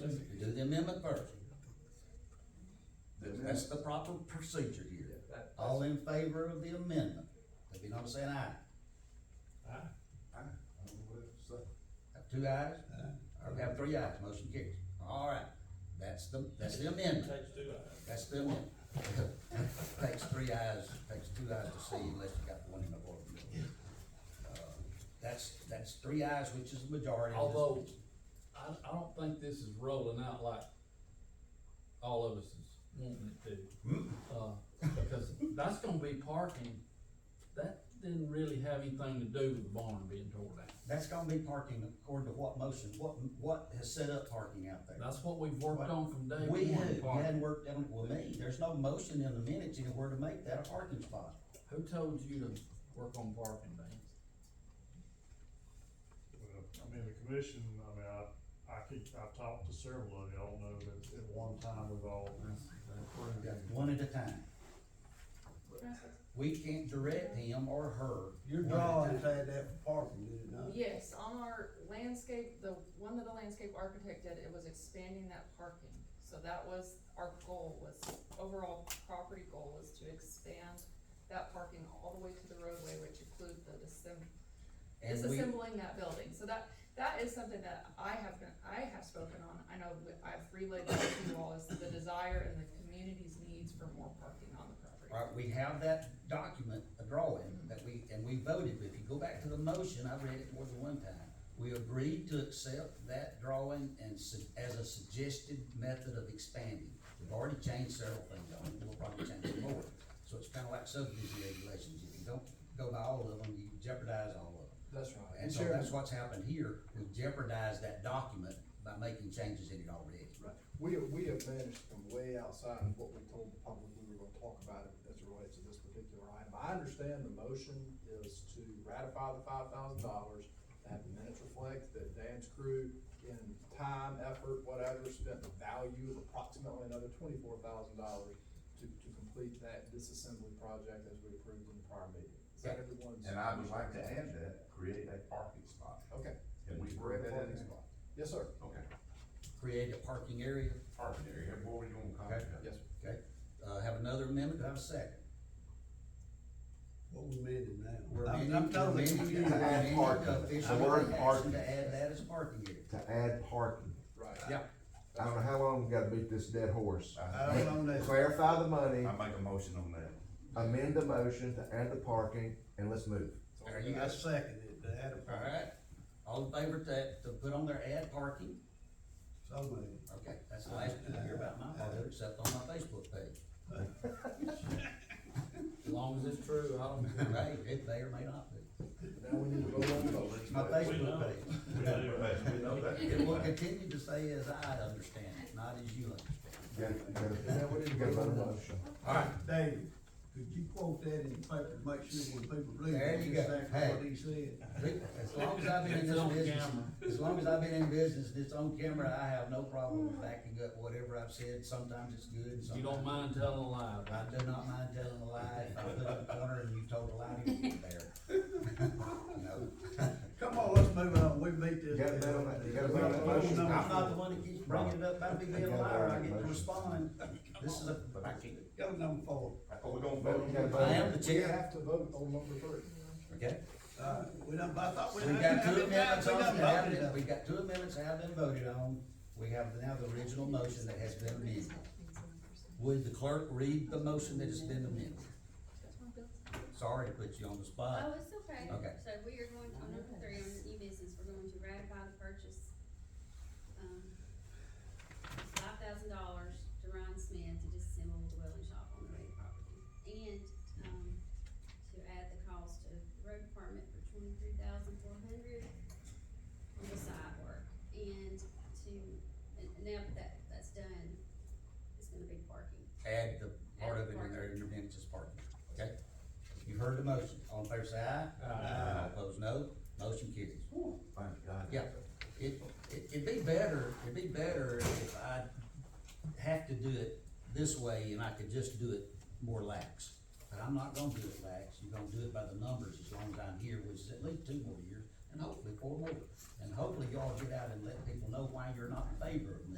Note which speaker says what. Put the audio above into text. Speaker 1: the amendment version. That's the proper procedure here.
Speaker 2: That-
Speaker 1: All in favor of the amendment, if you not saying aye, have two ayes? Or we have three ayes, motion carries. All right, that's the, that's the amendment.
Speaker 3: Takes two
Speaker 4: Oh,
Speaker 3: hours.
Speaker 1: That's the amendment. Takes three eyes, takes two eyes to see unless you got one in the board. Uh, That's, that's three eyes, which is the majority. of this-
Speaker 5: Although, I, I don't think this is rolling out like all of us is wanting it to. Uh, because that's gonna be parking, that didn't really have anything to do with the barn being torn down.
Speaker 1: That's gonna be parking according to what motion, what, what has set up parking out there?
Speaker 5: That's what we've worked on from day
Speaker 1: We
Speaker 5: one,
Speaker 1: had, we hadn't
Speaker 5: parking.
Speaker 1: worked on, well, me, there's no motion in the minutes anywhere to make that a parking spot.
Speaker 5: Who told you to work on parking, Dan?
Speaker 6: Well, uh, I mean, the commission, I mean, I, I keep, I've talked to several of y'all, know that at one time we've all approved.
Speaker 1: We got One at a time. We can't direct him or her.
Speaker 7: Your drawing had that for parking, did it not?
Speaker 8: Yes, on our landscape, the one that the landscape architect did, it was expanding that parking. So that was our goal, was overall property goal was to expand that parking all the way to the roadway, which include the disem-
Speaker 1: And we,
Speaker 8: disassembling that building. So that, that is something that I have been, I have spoken on, I know that I've relayed that to you all, is the desire and the community's needs for more parking on the property.
Speaker 1: right, we have that document, a drawing, that we, and we voted, but if you go back to the motion, I read it more than one time. We agreed to accept that drawing and su- as a suggested method of expanding. We've already changed several things on it, we'll probably change some more. So it's kinda like subdivision regulations, if you don't go by all of them, you jeopardize all of them.
Speaker 5: That's right.
Speaker 1: And so that's what's happened here, we jeopardized that document by making changes in it already.
Speaker 2: Right, we, we have managed to come way outside of what we told the public we were gonna talk about as it relates to this particular item. I understand the motion is to ratify the five thousand dollars, have the minutes reflect that Dan's crew in time, effort, whatever, spent the value of approximately another twenty-four thousand dollars to, to complete that disassembly project as we approved in the prior meeting. Is that everyone's?
Speaker 9: And I would like to add that, create a parking spot.
Speaker 2: Okay.
Speaker 9: Can we
Speaker 2: We're at
Speaker 9: bring that in?
Speaker 2: parking spot. Yes, sir.
Speaker 9: Okay,
Speaker 1: Create a parking area,
Speaker 9: parking area, what are you gonna call
Speaker 1: Okay.
Speaker 9: it?
Speaker 2: Yes, sir.
Speaker 1: okay? Uh, have another amendment, Do I have a second.
Speaker 7: What we made it now.
Speaker 1: We're
Speaker 7: I'm-
Speaker 1: amending,
Speaker 7: I'm
Speaker 1: we're
Speaker 7: totally
Speaker 1: amending,
Speaker 7: confused.
Speaker 1: we're amending
Speaker 10: parking.
Speaker 1: the official
Speaker 10: The word
Speaker 1: action
Speaker 10: parking.
Speaker 1: to add that as parking area.
Speaker 10: to add parking.
Speaker 2: Right.
Speaker 1: Yeah,
Speaker 10: I don't know how long we gotta beat this dead horse.
Speaker 7: I don't know that.
Speaker 10: Clarify the money,
Speaker 9: I make a motion on that.
Speaker 10: amend the motion to add the parking, and let's move.
Speaker 1: there you
Speaker 7: I
Speaker 1: go.
Speaker 7: second it, to add a
Speaker 1: All
Speaker 7: parking,
Speaker 1: right, all in favor to, to put on there add parking?
Speaker 7: so many.
Speaker 1: Okay, that's the last thing I hear about my father, except on my Facebook page.
Speaker 5: As long as it's true, I don't care.
Speaker 1: Right, it may or may not be.
Speaker 2: Now we need to vote on the motion.
Speaker 1: It's my Facebook page.
Speaker 3: We do.
Speaker 9: We know that.
Speaker 1: It will continue to say as I understand it, not as you understand.
Speaker 10: Gotta, gotta, you gotta vote on the motion.
Speaker 1: All right,
Speaker 7: David, could you quote that in the paper, to make sure when people read
Speaker 1: There
Speaker 7: it,
Speaker 1: you
Speaker 7: just
Speaker 1: go.
Speaker 7: act
Speaker 1: Hey.
Speaker 7: what he said?
Speaker 1: As long as I've been in
Speaker 5: It's
Speaker 1: this
Speaker 5: on
Speaker 1: business,
Speaker 5: camera.
Speaker 1: as long as I've been in business, and it's on camera, I have no problem with backing up whatever I've said, sometimes it's good,
Speaker 5: You
Speaker 1: sometimes.
Speaker 5: don't mind telling a lie, right?
Speaker 1: I do not mind telling a lie, if I put it in the corner and you told a lie, you'd be there. No.
Speaker 7: Come on, let's move on, we beat
Speaker 10: You
Speaker 7: this.
Speaker 10: gotta vote on that, you gotta vote on the
Speaker 1: I'm
Speaker 10: motion.
Speaker 1: not the one that keeps bringing it up, I'd be being a liar, I get to respond, this is a,
Speaker 9: But I can't,
Speaker 7: Go number four,
Speaker 9: oh, we gonna vote on
Speaker 10: You gotta
Speaker 9: that?
Speaker 10: vote on
Speaker 1: I
Speaker 10: it.
Speaker 1: am the
Speaker 2: We
Speaker 1: chair,
Speaker 2: have to vote on number three.
Speaker 1: okay?
Speaker 7: uh, we done, I thought we.
Speaker 1: We
Speaker 7: done-
Speaker 1: got
Speaker 7: how
Speaker 1: two
Speaker 7: many times
Speaker 1: amendments
Speaker 7: we
Speaker 1: on,
Speaker 7: done
Speaker 1: that have
Speaker 7: voted
Speaker 1: been-
Speaker 7: on
Speaker 1: we got two amendments that have been voted on, we have now the original motion that has been amended. Would the clerk read the motion that has been amended? Sorry to put you on the
Speaker 4: Oh,
Speaker 1: spot.
Speaker 4: it's okay.
Speaker 1: Okay.
Speaker 4: So we are going on number three on the new business, we're going to ratify the purchase, um, five thousand dollars to Ryan Smith to disassemble the welding shop on the Ray property. And, um, to add the cost of the road department for twenty-three thousand four hundred on the side work. And to, and now that that that's done, it's gonna be parking.
Speaker 1: Add the part of it in there, in your minutes is part, okay? You heard the motion, all in favor say aye. Aye. Opposed, no, motion carries.
Speaker 9: Thank God.
Speaker 1: Yeah, it, it, it'd be better, it'd be better if I have to do it this way and I could just do it more lax. But I'm not gonna do it lax, you're gonna do it by the numbers as long as I'm here, which is at least two more years, and hopefully four more. And hopefully y'all get out and let people know why you're not in favor of